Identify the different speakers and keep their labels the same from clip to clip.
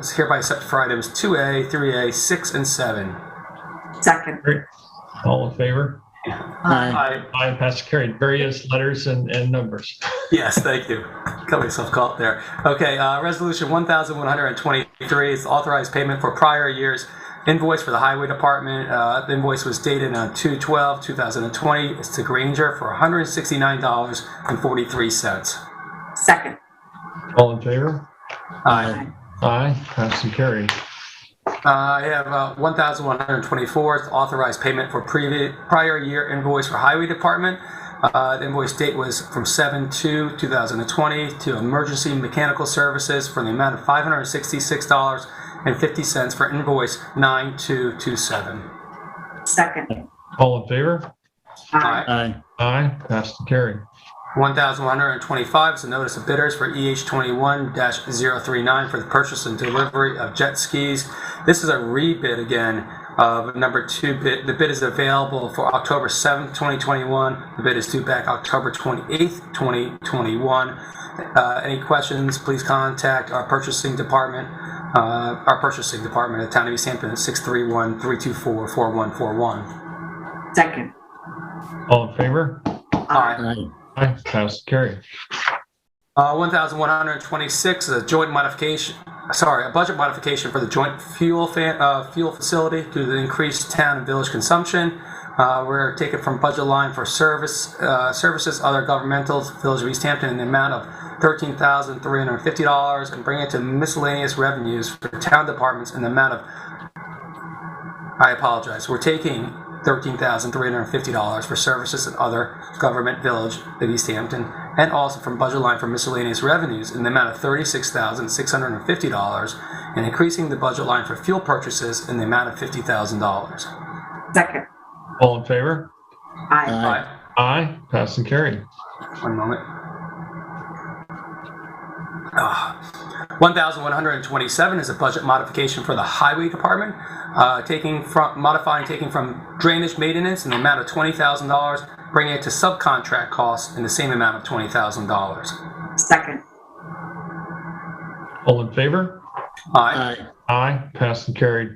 Speaker 1: is hereby accepted for items 2A, 3A, 6, and 7.
Speaker 2: Second.
Speaker 3: All in favor?
Speaker 1: Aye.
Speaker 2: Aye.
Speaker 3: Aye, pass carried. Various letters and, and numbers.
Speaker 1: Yes, thank you. Got myself caught there. Okay, uh, resolution 1123 is authorized payment for prior year's invoice for the highway department. Uh, the invoice was dated on 2/12/2020. It's to Granger for $169.43.
Speaker 2: Second.
Speaker 3: All in favor?
Speaker 1: Aye.
Speaker 3: Aye, pass and carried.
Speaker 1: Uh, I have uh, 1,124, is authorized payment for previous, prior year invoice for Highway Department. Uh, The invoice date was from 7/2/2020 to Emergency Mechanical Services for the amount of $566.50 for invoice 9227.
Speaker 2: Second.
Speaker 3: All in favor?
Speaker 2: Aye.
Speaker 4: Aye.
Speaker 3: Aye, pass and carried.
Speaker 1: 1,125 is a notice of bidders for EH 21-039 for the purchase and delivery of jet skis. This is a rebid again of number two bid. The bid is available for October 7th, 2021. The bid is due back October 28th, 2021. Uh, Any questions, please contact our purchasing department, uh, our purchasing department at Town of East Hampton at 631-324-4141.
Speaker 2: Second.
Speaker 3: All in favor?
Speaker 1: Aye.
Speaker 4: Aye.
Speaker 3: Aye, pass and carried.
Speaker 1: Uh, 1,126 is a joint modification, sorry, a budget modification for the joint fuel fa- uh, fuel facility due to the increased town and village consumption. Uh, we're taking from budget line for service uh, services, other governmental, Village of East Hampton, in the amount of $13,350 and bring it to miscellaneous revenues for town departments in the amount of, I apologize, we're taking $13,350 for services and other government village of East Hampton, and also from budget line for miscellaneous revenues in the amount of $36,650, and increasing the budget line for fuel purchases in the amount of $50,000.
Speaker 2: Second.
Speaker 3: All in favor?
Speaker 2: Aye.
Speaker 1: Aye.
Speaker 3: Aye, pass and carried.
Speaker 1: One moment. Ah. 1,127 is a budget modification for the highway department, uh, taking from, modifying, taking from drainage maintenance in the amount of $20,000, bringing it to subcontract costs in the same amount of $20,000.
Speaker 2: Second.
Speaker 3: All in favor?
Speaker 1: Aye.
Speaker 4: Aye.
Speaker 3: Aye, pass and carried.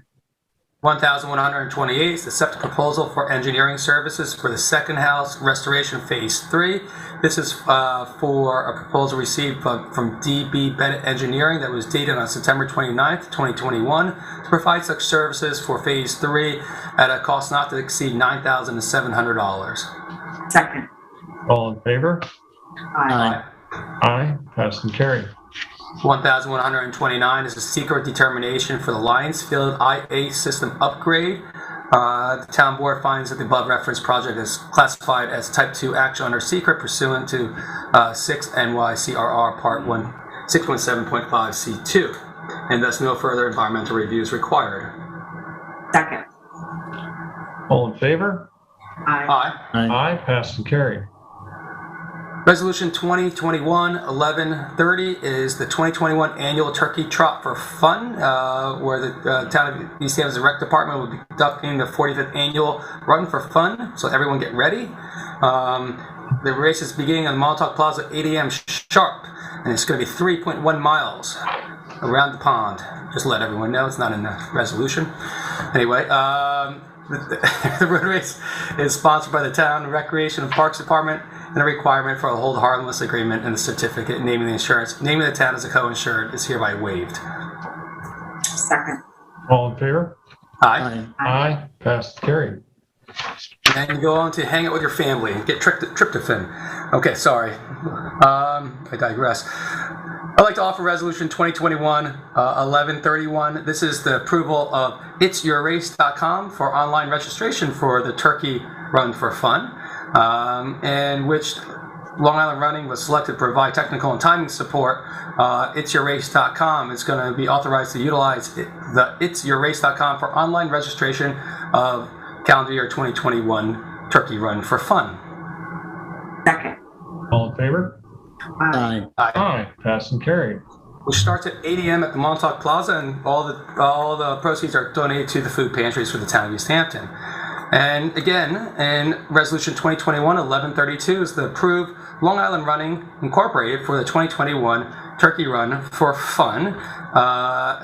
Speaker 1: 1,128 is the septic proposal for engineering services for the second house restoration phase three. This is uh, for a proposal received from from DB Bennett Engineering that was dated on September 29th, 2021, to provide such services for phase three at a cost not to exceed $9,700.
Speaker 2: Second.
Speaker 3: All in favor?
Speaker 2: Aye.
Speaker 4: Aye.
Speaker 3: Aye, pass and carried.
Speaker 1: 1,129 is a secret determination for the Lionsfield IA system upgrade. Uh, The town board finds that the above referenced project is classified as type 2 action under secret pursuant to uh, 6 NYCRR Part 1, 617.5C2, and thus no further environmental review is required.
Speaker 2: Second.
Speaker 3: All in favor?
Speaker 2: Aye.
Speaker 1: Aye.
Speaker 4: Aye.
Speaker 3: Aye, pass and carried.
Speaker 1: Resolution 2021-1130 is the 2021 Annual Turkey Trot for Fun, uh, where the uh, Town of East Hampton's Rec Department will be conducting the 45th Annual Run for Fun, so everyone get ready. Um, The race is beginning on Montauk Plaza at 8 AM sharp, and it's going to be 3.1 miles around the pond. Just let everyone know, it's not in the resolution. Anyway, um, the, the road race is sponsored by the town recreation and parks department and a requirement for a hold harmless agreement and a certificate naming the insurance, naming the town as a co-insured is hereby waived.
Speaker 2: Second.
Speaker 3: All in favor?
Speaker 1: Aye.
Speaker 4: Aye.
Speaker 3: Aye, pass and carried.
Speaker 1: And then you go on to hang out with your family and get trypt- tryptophan. Okay, sorry. Um, I digress. I'd like to offer resolution 2021 uh, 1131. This is the approval of itsyourrace.com for online registration for the Turkey Run for Fun, um, in which Long Island Running was selected to provide technical and timing support. Uh, itsyourrace.com is going to be authorized to utilize it, the itsyourrace.com for online registration of calendar year 2021 Turkey Run for Fun.
Speaker 2: Second.
Speaker 3: All in favor?
Speaker 2: Aye.
Speaker 4: Aye.
Speaker 1: Aye.
Speaker 3: Aye, pass and carried.
Speaker 1: which starts at 8 a.m. at the Montauk Plaza, and all the all the proceeds are donated to the food pantries for the town of East Hampton. And again, in Resolution 2021-1132 is the approve Long Island Running Incorporated for the 2021 Turkey Run for Fun. Uh,